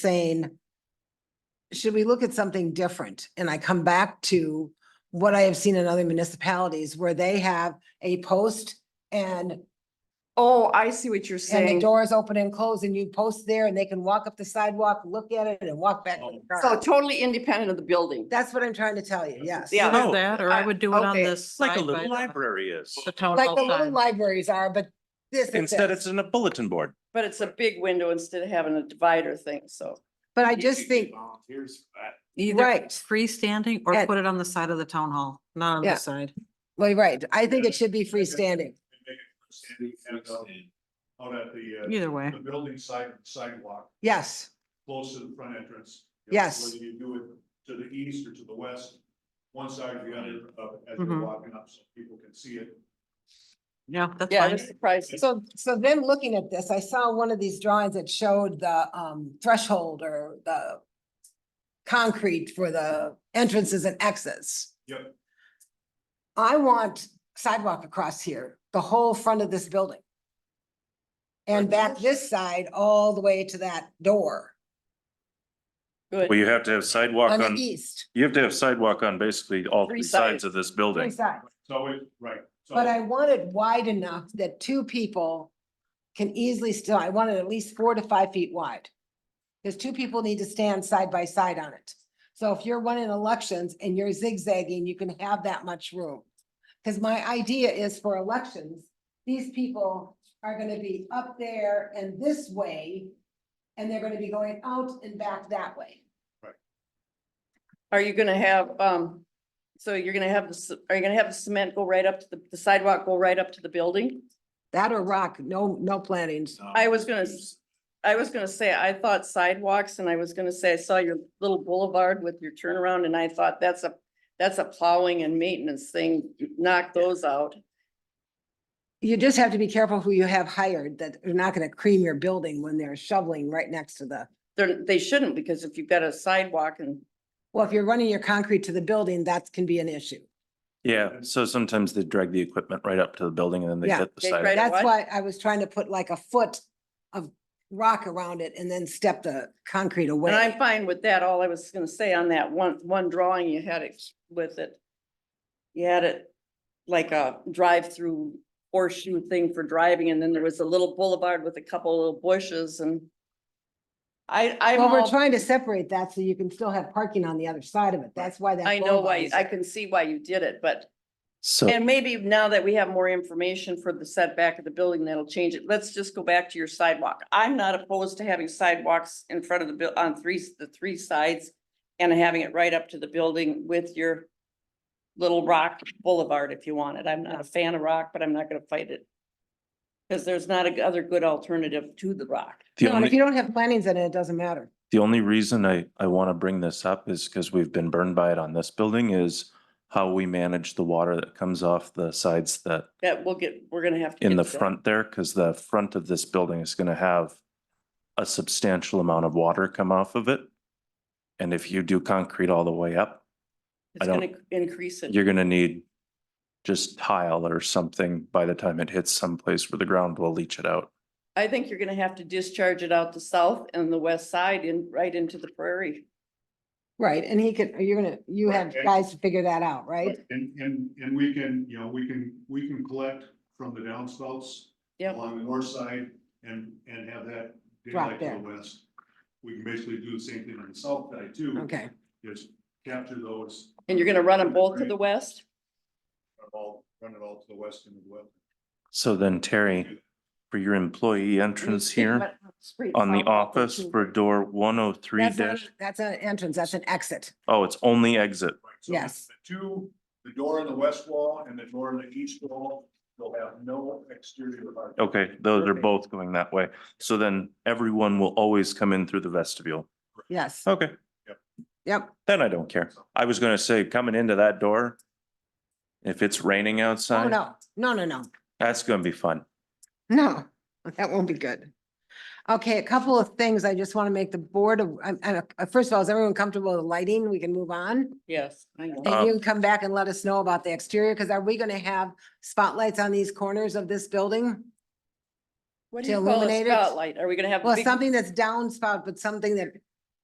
saying, should we look at something different? And I come back to what I have seen in other municipalities where they have a post and, Oh, I see what you're and the saying. doors open and close and you post there and they can walk up the sidewalk, look at it and walk back. to the Oh, So car. totally independent of the building. That's what I'm trying to tell you, yes. Yeah. Either No. that, or I I- would do it on okay. this. It's Oh, like a side by little the- library is. The town Like hall the little sign. libraries are, but this is Instead, this. it's in a bulletin board. But it's a big window instead of having a divider thing, so. But I just think, Volunteers for that. Either Right. freestanding or And- put it on the side of the town hall, not on Yeah. the side. well, right, I think it should be freestanding. Make it standing and, uh, Out at the, Either uh, way, the building side, sidewalk, Yes, close to the front entrance. you know, Yes. Whether you do it to the east or to the west, one side or the other, uh, as Mhm. Mm-hmm. you're walking up, so people can see it. yeah, that's Yeah, fine. they're surprised. so, so then looking at this, I saw one of these drawings that showed the, um, threshold or the concrete for the entrances and exits. Yep. I want sidewalk across here, the whole front of this building. And back this side all the way to that door Well, Good. you have to have sidewalk on the on, east, you have to have sidewalk on basically all Three three sides. sides of this three building. sides. So it, right. so- But I want it wide enough that two people can easily still, I want it at least four to five feet wide. Because two people need to stand side by side on it. So if you're running elections and you're zigzagging, you can have that much room. Because my idea is for elections, these people are gonna be up there and this way. And they're gonna be going out and back that way. Are you gonna have, um, so you're gonna have, the c- are you gonna have the cement go right up to the- the sidewalk, go right up to the building? That or rock, no, no plantings. um, I was gonna s- I was gonna say, I thought sidewalks and I was gonna say, I saw your little boulevard with your turnaround and I thought that's a, that's a plowing and maintenance thing. Knock those out. You just have to be careful who you have hired, that they're not gonna cream your building when they're shoveling right next to the. They're, they shouldn't because if you've got a sidewalk and Well, if you're running your concrete to the building, that can be an issue. Yeah, so sometimes they drag the equipment right up to the building and then they Yeah. hit the They side. drag- That's what? why I was trying to put like a foot of rock around it and then step the concrete And I'm away. fine with that. All I was gonna say on that one, one drawing, you had it with it. You had it like a drive-through horseshoe thing for driving, and then there was a little boulevard with a couple little bushes and. I, I'm Well, we're all- trying to separate that so you can still have parking on the other side of it. That's why that. I know bulb why, is I there. can see why you did it, but, So, and maybe now that we have more information for the setback of the building, that'll change it. Let's just go back to your sidewalk. I'm not opposed to having sidewalks in front of the buil- on three, the three sides. And having it right up to the building with your little rock boulevard if you want it. I'm not a fan of rock, but I'm not gonna fight it. Cause there's not a g- other good alternative to the rock. the No, and If only, you don't have plantings in it, it doesn't matter. the only reason I, I want to bring this up is because we've been burned by it on this building is how we manage the water that comes off the sides that That we'll get, we're gonna have. to in get the to that. front there, because the front of this building is gonna have a substantial amount of water come off of it. And if you do concrete all the way up, I It's gonna increase it. you're gonna need just tile or something by the time it hits someplace where the ground will leach it out. I think you're gonna have to discharge it out the south and the west side and right into the prairie. Right, and he could, you're gonna, you have Okay. guys to figure that out, right? And, and, and we can, you know, we can, we can collect from the downspouts. Yep. Along the north side and, and have that Drop daylight to there. the west. We can basically do the same thing on the south side too. Okay, Just capture those, And you're gonna run them both to the west? run it all, run it all to the west and the west. So then Terry, for your employee entrance here on the office for door one oh three that's not, dash, that's an entrance, that's an exit. oh, it's only exit. Right, so Yes. the Two, the door on the west wall and the door on the east wall, they'll have no exterior. light. Okay, those are Perfect. both going that way. So then everyone will always come in through the vestibule. Yes, Oh. Okay. yep, Then I don't care. I was gonna say, coming into that door, if it's raining oh, outside, no, no, no, no. that's gonna be fun. No, that won't be good. Okay, a couple of things I just want to make the board, of- I'm, I'm, uh, first of all, is everyone comfortable with lighting? We can move on. Yes, I know. Uh, And you can come back and let us know about the exterior, because are we going to have spotlights on these corners of this building? What to do you call a illuminate it? spotlight? Are we gonna have? Well, big- something that's downspout, but something that